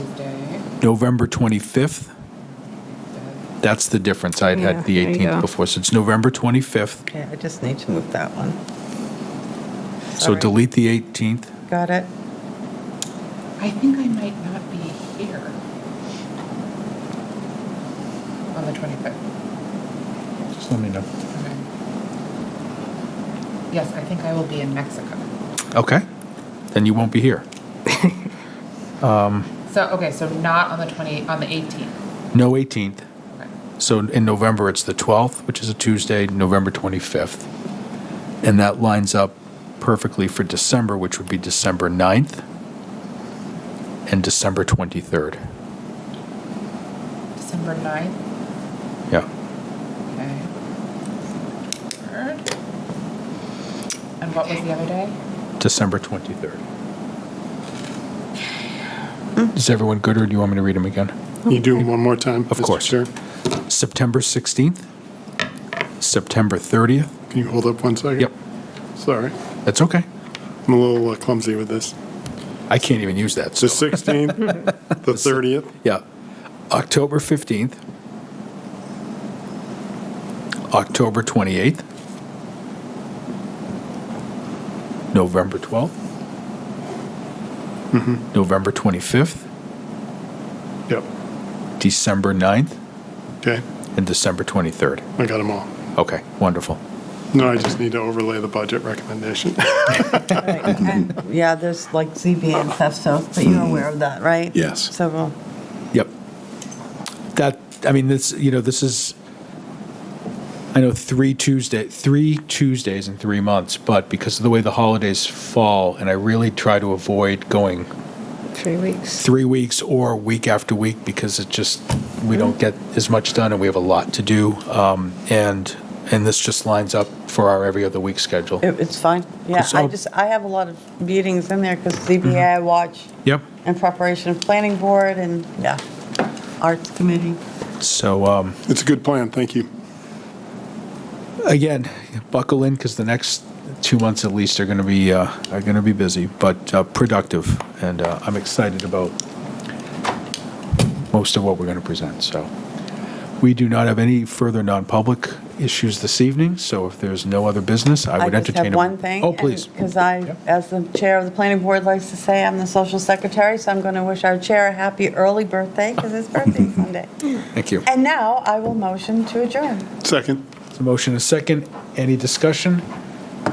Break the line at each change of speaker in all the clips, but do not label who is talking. Tuesday.
November 25th. That's the difference. I'd
Yeah,
had the
there you go.
18th before, so it's November 25th.
Okay, I just need to move that one.
So
Sorry.
delete the 18th.
Got it?
I think I might not be here on the 25th.
Just let me know.
Okay. Yes, I think I will be in Mexico.
Okay, then you won't be here.
So, okay, so not on the 20, on the 18th.
No 18th.
Okay.
So in November, it's the 12th, which is a Tuesday, November 25th. And that lines up perfectly for December, which would be December 9th and December 23rd.
December 9th,
Yeah.
okay. Third. And what was the other day?
December 23rd.
Mm.
Is everyone good, or do you want me to read them again?
You do them one more time? Mr.
course.
Chair?
September 16th, September 30th.
Can you hold up one second?
Yep,
Sorry,
that's okay.
I'm a little uh, clumsy with this.
I can't even use that.
The
So,
16th, the 30th,
yeah. October 15th, October 28th, November 12th, November 25th,
yep,
December 9th,
okay,
and December 23rd.
I got them all.
Okay, wonderful.
No, I just need to overlay the budget recommendation.
Yeah, there's like ZBA and stuff, so, but you're aware of that, right?
Yes.
So, uh,
Yep. That, I mean, this, you know, this is, I know three Tuesday, three Tuesdays in three months, but because of the way the holidays fall, and I really try to avoid going
Three weeks.
three weeks or week after week because it just, we
Mm-hmm.
don't get as much done and we have a lot to do. Um, and, and this just lines up for our every other week schedule.
it- it's fine. Yeah, I
So-
just, I have a lot of meetings in there because ZBA I watch
Yep.
in preparation of planning board and, yeah, arts committee.
So, um,
It's a good plan, thank you.
again, buckle in because the next two months at least are going to be uh, are going to be busy, but uh, productive, and uh, I'm excited about most of what we're going to present. So, we do not have any further non-public issues this evening. So, if there's no other business, I would entertain.
just have
a-
one thing.
Oh, please.
Because I,
Yep.
as the chair of the planning board likes to say, I'm the social secretary, so I'm going to wish our chair a happy early birthday because his birthday's Sunday.
Thank you.
And now I will motion to adjourn.
Second.
So motion is second. Any discussion?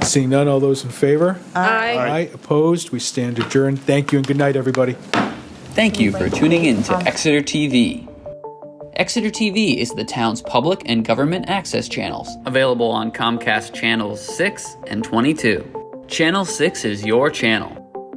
Seeing none, all those in favor?
Aye.
Aye. Opposed? We stand adjourned. Thank you and good night, everybody.
Thank you for tuning in to Exeter TV. Exeter TV is the town's public and government access channels, available on Comcast Channels 6 and 22. Channel 6 is your channel.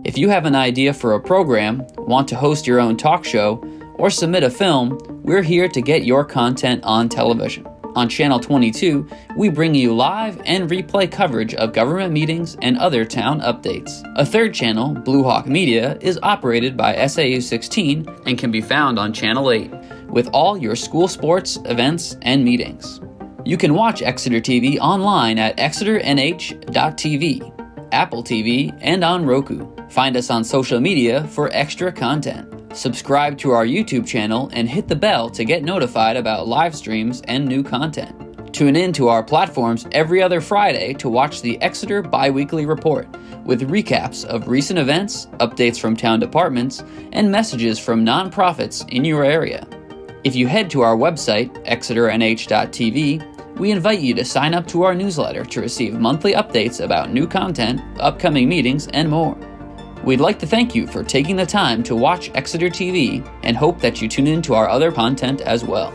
If you have an idea for a program, want to host your own talk show, or submit a film, we're here to get your content on television. On Channel 22, we bring you live and replay coverage of government meetings and other town updates. A third channel, Blue Hawk Media, is operated by SAU 16 and can be found on Channel 8 with all your school sports, events, and meetings. You can watch Exeter TV online at exeternh.tv, Apple TV, and on Roku. Find us on social media for extra content. Subscribe to our YouTube channel and hit the bell to get notified about live streams and new content. Tune in to our platforms every other Friday to watch the Exeter Biweekly Report with recaps of recent events, updates from town departments, and messages from nonprofits in your area. If you head to our website, exeternh.tv, we invite you to sign up to our newsletter to receive monthly updates about new content, upcoming meetings, and more. We'd like to thank you for taking the time to watch Exeter TV and hope that you tune in to our other content as well.